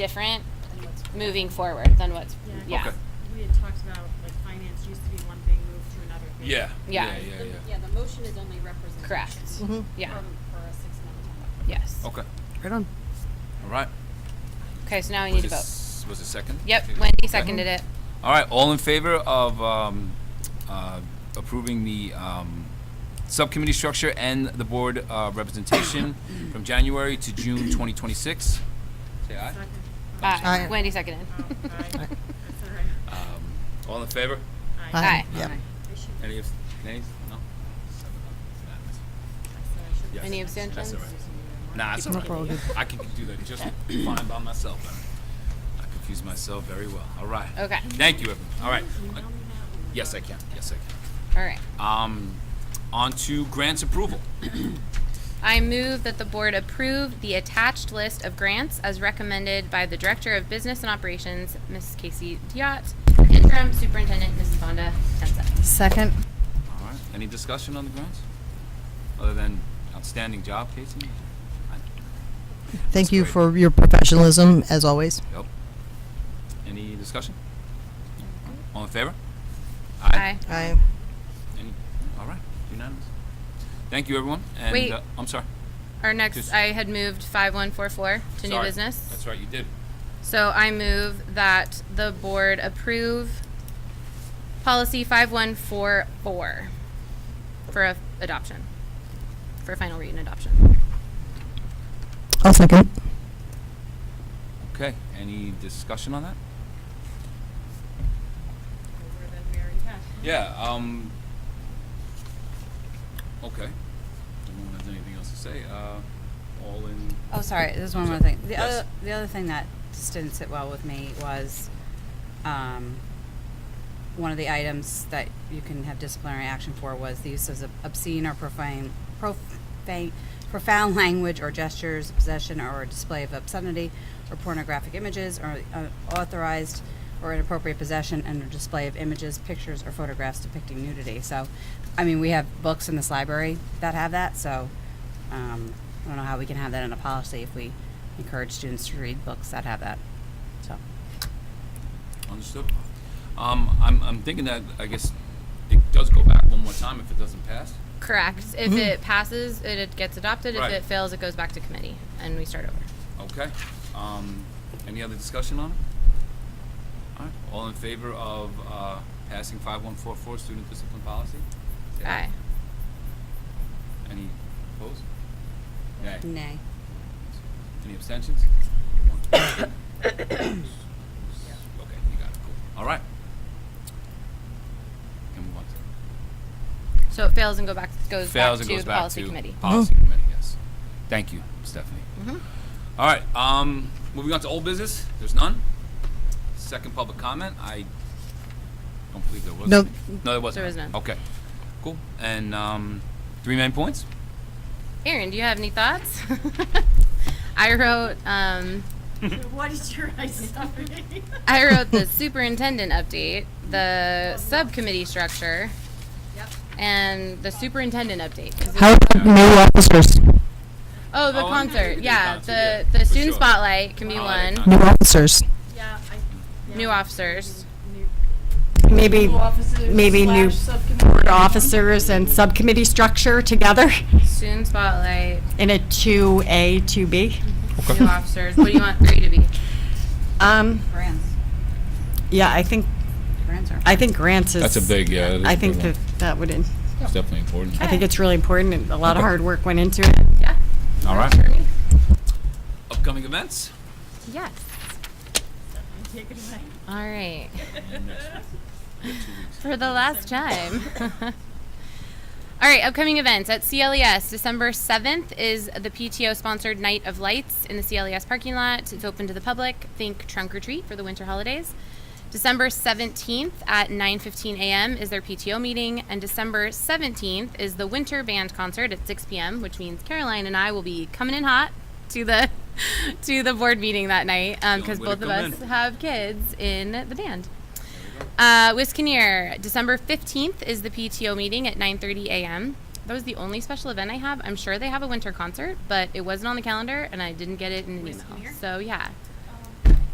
different And what's- moving forward than what's Yeah, I yeah guess we had talked about, like, finance used to be one thing, moved to another thing. Yeah. Yeah. Yeah. Yeah. The- yeah. the motion is only representation. Mm-hmm. correct Mhm. yeah Um, From, for a six-month time. yes Okay. Right on. All right. okay so now we was need to it vote s- Was it second? yep Okay. wendy Okay. seconded it All right. All in favor of um, uh, approving the um, subcommittee structure and the board uh, representation from January to June 2026? Say aye. Second. Oh, aye. Aye. Uh, wendy seconded Oh, aye. That's all right. Um, all in favor? Aye. aye Yep. I should- Any abs- nays? I No. said I should- Yes. any That's abstentions all right. Nah, it's Keep 'em all up, we're all right. good. I can do that just fine by myself. I, I confuse myself very well. All right. okay Thank you, everyone. All right. Uh, Email me that one. Yes, I can. Yes, I can. all right Um, on to grants approval. I move that the board approve the attached list of grants as recommended by the Director of Business and Operations, Ms. Casey Diot, Interim Superintendent, Mrs. Vonda Tensa. Second. All right. Any discussion on the grants? Other than outstanding job, Casey? I- Thank you great. for your professionalism, as always. Yep. Any discussion? All in favor? Aye. I Any, all right. Unanimous. Thank you, everyone. And, Wait. Uh, I'm sorry. Our Just- next, I had moved 5144 to new Sorry. business. That's right. You did. So I move that the board approve policy 5144 for a- adoption, for final read and adoption. I'll second. Okay. Any discussion on that? Over that we already had. Yeah, um, okay. Anyone has anything else to say? Uh, all in, Oh, sorry. There's one Sure. more thing. The Yes. other the other thing that just didn't sit well with me was um, one of the items that you can have disciplinary action for was the use of obscene or profane profane profound language or gestures, possession or display of obscenity or pornographic images or unauthorized or inappropriate possession and or display of images, pictures or photographs depicting nudity. So, I mean, we have books in this library that have that, so um, I don't know how we can have that in a policy if we encourage students to read books that have that. So, understood? Um, I'm, I'm thinking that, I guess, it does go back one more time if it doesn't pass. Correct. If it passes, it- it gets adopted. If Mm-hmm. Right. it fails, it goes back to committee and we start over. Okay, um, any other discussion on it? All right, all in favor of, uh, passing five one four four student discipline policy? Say Aye. Any opposed? Nay. nay. Any abstentions? Okay, you got it, cool. All right. Can we want to? So it fails and go back, goes back Fails to and goes back policy to committee. Mm-hmm. Policy committee, yes. Thank you, Stephanie. All right, um, moving on to old business, there's none. Second public comment, I don't believe there was. No. any. No, there wasn't. There was none. Okay, cool. And, um, three main points? Aaron, do you have any thoughts? I wrote, um, What is your, I sorry. I wrote the superintendent update, the subcommittee structure, and the superintendent update. 'cause How about new officers? it- oh, the Oh, yeah, we concert. could do Yeah, concert, the yeah, the for student sure. spotlight can be Oh, one. yeah, New officers. Yeah, I. yeah. New officers. New- Maybe, officers maybe new slash subcommittee. board officers and subcommittee structure together Student spotlight, in a 2A, 2B. new officers. What do you want three to be? Um, Grants. yeah, I think, Grants are. I think grants is. That's a big, yeah. I think that that would, in- It's definitely important. I think it's really important and a lot of Okay. hard work went into it. Yeah. All right. Upcoming events? Yes. Take it away. All right. For the last time. All right, upcoming events at CLES. December 7th is the PTO sponsored Night of Lights in the CLES parking lot. It's open to the public. Think trunk or treat for the winter holidays. December 17th at 9:15 a.m. is their PTO meeting and December 17th is the winter band concert at 6 p.m., which means Caroline and I will be coming in hot to the to the board meeting that night The only because way to both of come us in. have kids in the band. Uh, Wiskaneer, December 15th is the PTO meeting at 9.30 a.m. That was the only special event I have. I'm sure they have a winter concert, but it wasn't on the calendar, and I didn't get it in an email. So, yeah.